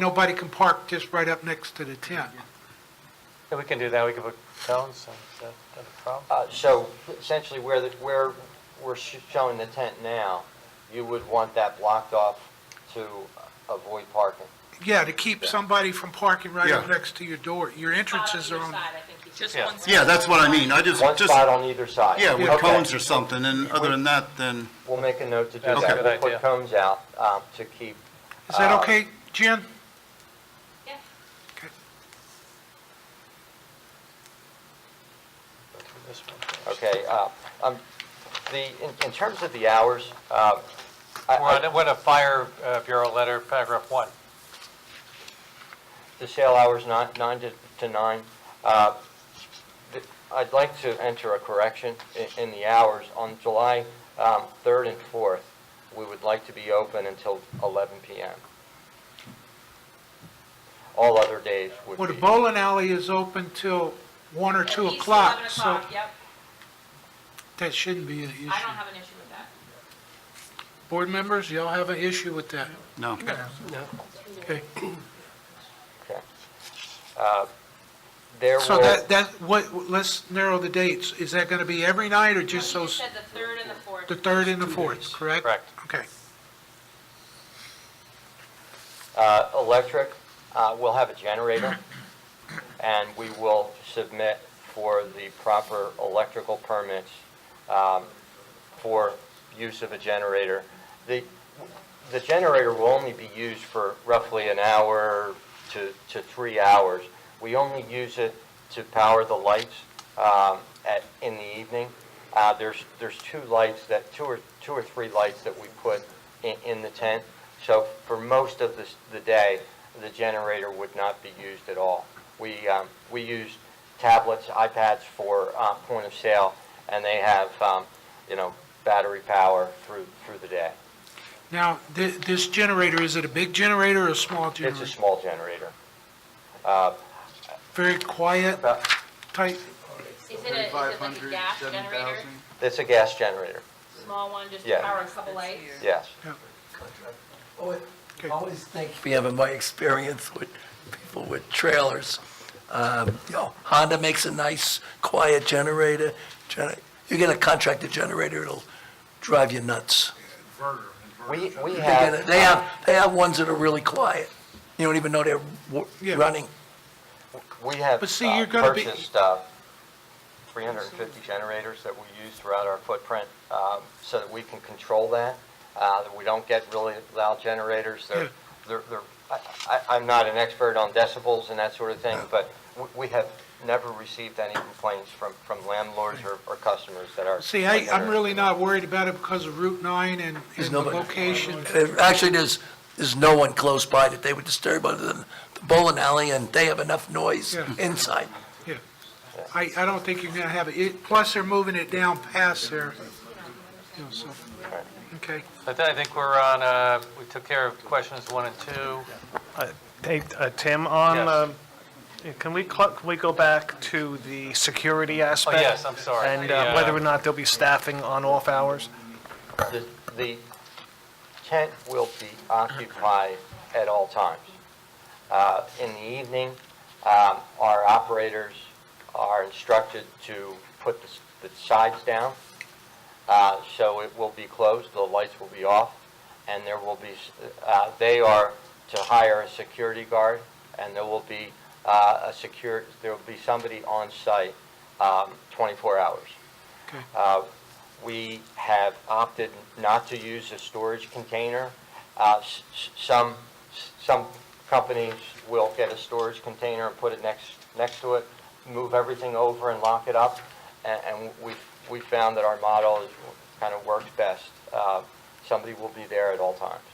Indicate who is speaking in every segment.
Speaker 1: Nobody can park just right up next to the tent.
Speaker 2: Yeah, we can do that, we can put cones, and is that not a problem?
Speaker 3: Uh, So essentially where, the- where we're sh- showing the tent now, you would want that blocked off to avoid parking?
Speaker 1: Yeah, to keep somebody from parking right up
Speaker 4: Yeah.
Speaker 1: next to your door. Your
Speaker 5: Uh,
Speaker 1: entrances are on,
Speaker 5: Just
Speaker 2: Yeah.
Speaker 5: one.
Speaker 4: Yeah, that's what I mean, I just,
Speaker 3: One
Speaker 4: just,
Speaker 3: spot on either side?
Speaker 4: yeah, with
Speaker 3: Okay.
Speaker 4: cones or something, and other than that, then,
Speaker 3: We'll make a note to do
Speaker 2: That's a
Speaker 3: that.
Speaker 2: good
Speaker 3: We'll put
Speaker 2: idea.
Speaker 3: cones out um, to keep,
Speaker 1: is that
Speaker 3: Uh,
Speaker 1: okay, Jen?
Speaker 2: Go through this one first.
Speaker 3: okay, uh, um, the, in in terms of the hours, uh, I-
Speaker 2: We're
Speaker 3: I-
Speaker 2: on, what a fire uh, bureau letter, paragraph one.
Speaker 3: the sale hours nine nine to to nine. Uh, th- I'd like to enter a correction i- in the hours. On July um, 3rd and 4th, we would like to be open until 11 PM. All other days would
Speaker 1: Well, the
Speaker 3: be,
Speaker 1: bowling alley is open till one or two o'clock, so
Speaker 5: yep.
Speaker 1: that shouldn't be an issue.
Speaker 5: I don't have an issue with that.
Speaker 1: Board members, y'all have an issue with that?
Speaker 4: no.
Speaker 1: Okay.
Speaker 3: okay. Uh, There
Speaker 1: So
Speaker 3: will,
Speaker 1: that, that, what, let's narrow the dates. Is that going to be every night or just
Speaker 5: You
Speaker 1: so,
Speaker 5: said the third and the fourth.
Speaker 1: the third and the fourth, correct?
Speaker 2: Correct.
Speaker 1: Okay.
Speaker 3: uh, electric, uh, we'll have a generator, and we will submit for the proper electrical permits um, for use of a generator. The, the generator will only be used for roughly an hour to, to three hours. We only use it to power the lights um, at, in the evening. Uh, There's, there's two lights that, two or, two or three lights that we put in, in the tent. So for most of the, s- the day, the generator would not be used at all. We, um, we use tablets, iPads for uh, point of sale, and they have, um, you know, battery power through, through the day.
Speaker 1: Now, thi- this generator, is it a big generator or a small
Speaker 3: It's a
Speaker 1: generator?
Speaker 3: small generator.
Speaker 1: Very quiet
Speaker 3: About-
Speaker 1: type?
Speaker 5: Is it a, is it like a gas generator,
Speaker 3: It's a gas generator,
Speaker 5: small one, just to
Speaker 3: Yeah.
Speaker 5: power a couple lights?
Speaker 3: yes.
Speaker 6: Always- Always think, we have in my experience with people with trailers, um, you know, Honda makes a nice, quiet generator. gener- You get a contractor generator, it'll drive you nuts.
Speaker 3: We, we
Speaker 6: They get
Speaker 3: have.
Speaker 6: it- they have, they have ones that are really quiet. You don't even know they're wo-
Speaker 1: Yeah.
Speaker 6: running.
Speaker 3: We have
Speaker 1: But see, you're
Speaker 3: uh,
Speaker 1: gonna be-
Speaker 3: purchased uh, 350 generators that we use throughout our footprint um, so that we can control that, uh, that we don't get really loud generators.
Speaker 1: Yeah.
Speaker 3: They're, they're, they're- I- I- I'm not an expert on decibels and that sort of thing, but we- we have never received any complaints from, from landlords or or customers that are.
Speaker 1: See, I, I'm really not worried about it because of Route 9 and, and
Speaker 6: There's
Speaker 1: the
Speaker 6: nobody-
Speaker 1: location.
Speaker 6: Uh, Actually, there's, there's no one close by that they would disturb other than the bowling alley, and they have enough noise
Speaker 1: Yeah.
Speaker 6: inside.
Speaker 1: I, I don't think you're gonna have it. it, plus they're moving it down past there. You know, so, okay.
Speaker 2: I thi- I think we're on, uh, we took care of questions one and two.
Speaker 7: Hey, uh, Tim, on,
Speaker 2: Yes.
Speaker 7: um, can we, cl- can we go back to the security aspect?
Speaker 2: Oh, yes, I'm sorry.
Speaker 7: And
Speaker 2: The,
Speaker 7: uh,
Speaker 2: uh,
Speaker 7: whether or not there'll be staffing on off hours?
Speaker 3: The- The tent will be occupied at all times. Uh, In the evening, um, our operators are instructed to put the s- the sides down, Uh, so it will be closed, the lights will be off, and there will be, s- uh, they are to hire a security guard, and there will be uh, a secure, there will be somebody on site um, 24 hours. Uh, We have opted not to use a storage container. Uh, s- s- Some, s- some companies will get a storage container and put it next, next to it, move everything over and lock it up, and, and we, we found that our model is, kind of works best. Uh, Somebody will be there at all times.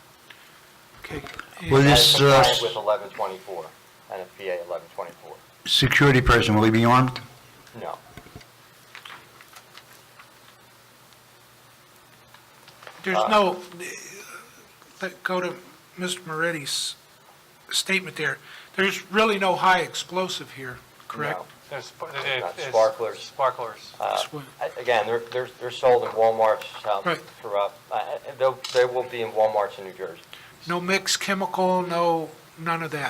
Speaker 1: Okay.
Speaker 8: Will
Speaker 3: And
Speaker 8: this uh,
Speaker 3: compliant with 1124, and a PA 1124.
Speaker 8: security person, will he be armed?
Speaker 3: No.
Speaker 1: There's no, let, go to Mr. Moretti's statement there. There's really no high explosive here, correct?
Speaker 3: No.
Speaker 2: There's sp- there-
Speaker 3: Not
Speaker 2: there's
Speaker 3: sparklers. Uh,
Speaker 2: Sparklers.
Speaker 1: That's what-
Speaker 3: A- Again, they're, they're, they're sold in Walmarts um,
Speaker 1: Right.
Speaker 3: throughout, uh, uh, they'll- they will be in Walmarts in New Jersey.
Speaker 1: No mixed chemical, no none of that.